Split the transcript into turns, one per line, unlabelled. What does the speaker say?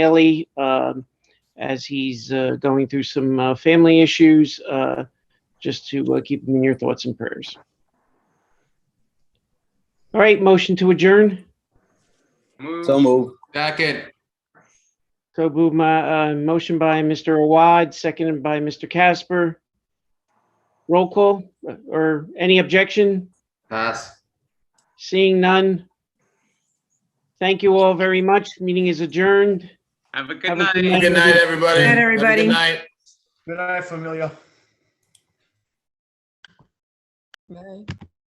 Bailey um, as he's uh, going through some uh, family issues, uh, just to uh, keep him in your thoughts and prayers. All right, motion to adjourn.
So
Move,
move.
second,
So move my, uh, motion by Mr. Awad, seconded by Mr. Casper. Roll call uh, or any objection?
pass.
Seeing none. Thank you all very much. Meeting is adjourned.
Have a good
Have a good
night.
night.
Good night, everybody.
Good night,
Have a
everybody.
Good night.
Good night, familia.